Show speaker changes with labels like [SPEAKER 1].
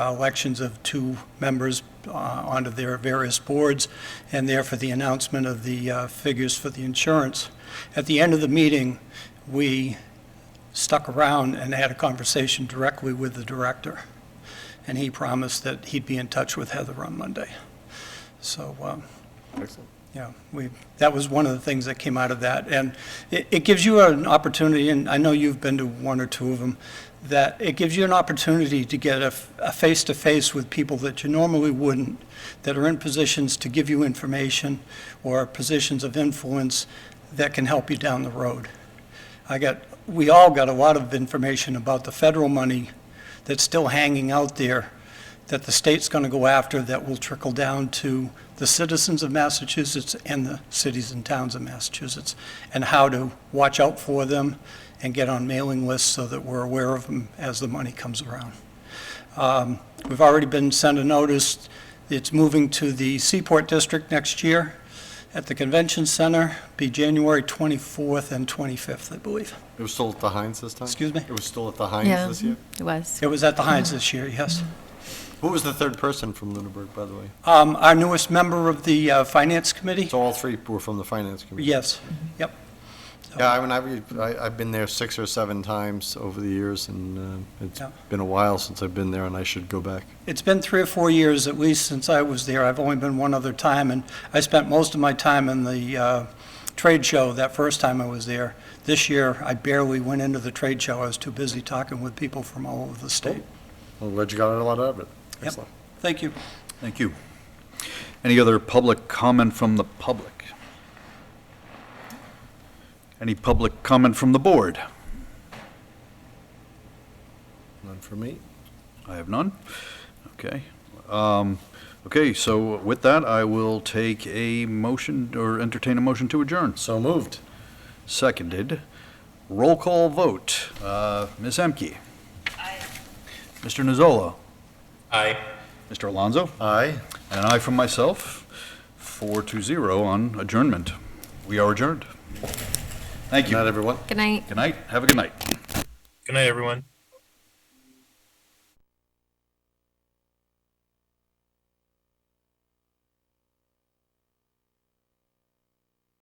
[SPEAKER 1] elections of two members uh, onto their various boards, and therefore the announcement of the uh, figures for the insurance. At the end of the meeting, we stuck around and had a conversation directly with the director, and he promised that he'd be in touch with Heather on Monday. So, um,
[SPEAKER 2] Excellent.
[SPEAKER 1] yeah, we, that was one of the things that came out of that. And it, it gives you an opportunity, and I know you've been to one or two of them, that it gives you an opportunity to get a, f- a face-to-face with people that you normally wouldn't, that are in positions to give you information or positions of influence that can help you down the road. I got, we all got a lot of information about the federal money that's still hanging out there that the state's going to go after that will trickle down to the citizens of Massachusetts and the cities and towns of Massachusetts, and how to watch out for them and get on mailing lists so that we're aware of them as the money comes around. Um, We've already been sent a notice, it's moving to the Seaport District next year at the Convention Center, be January 24th and 25th, I believe.
[SPEAKER 2] It was still at the Heinz this time?
[SPEAKER 1] Excuse me?
[SPEAKER 2] It was still at the
[SPEAKER 3] Yeah,
[SPEAKER 2] Heinz this year?
[SPEAKER 3] It was.
[SPEAKER 1] It was at the Heinz this year, yes. Mm-hmm.
[SPEAKER 2] Who was the third person from Lunenburg, by the way?
[SPEAKER 1] Um, Our newest member of the uh, Finance Committee?
[SPEAKER 2] So all three were from the Finance Committee?
[SPEAKER 1] Yes, yep.
[SPEAKER 2] Yeah, I mean, I've, I- I've been there six or seven times over the years, and uh, it's
[SPEAKER 1] Yeah.
[SPEAKER 2] been a while since I've been there, and I should go back.
[SPEAKER 1] It's been three or four years at least since I was there. I've only been one other time, and I spent most of my time in the uh, trade show that first time I was there. This year, I barely went into the trade show. I was too busy talking with people from all over the state.
[SPEAKER 2] Well, glad you got a lot out of it.
[SPEAKER 1] Yep.
[SPEAKER 2] Excellent.
[SPEAKER 1] Thank you.
[SPEAKER 4] Thank you. Any other public comment from the public? Any public comment from the board?
[SPEAKER 2] None for me.
[SPEAKER 4] I have none. Okay. Um, Okay, so with that, I will take a motion or entertain a motion to adjourn.
[SPEAKER 2] So moved.
[SPEAKER 4] Seconded. Roll call vote. Uh, Ms. Emke? Aye. Mr. Nizzola?
[SPEAKER 5] Aye.
[SPEAKER 4] Mr. Alonso?
[SPEAKER 2] Aye.
[SPEAKER 4] And an aye from myself, four to zero on adjournment. We are adjourned. Thank
[SPEAKER 2] Good night,
[SPEAKER 4] you.
[SPEAKER 2] everyone.
[SPEAKER 3] Good night.
[SPEAKER 4] Good night. Have a good night.
[SPEAKER 5] Good night, everyone.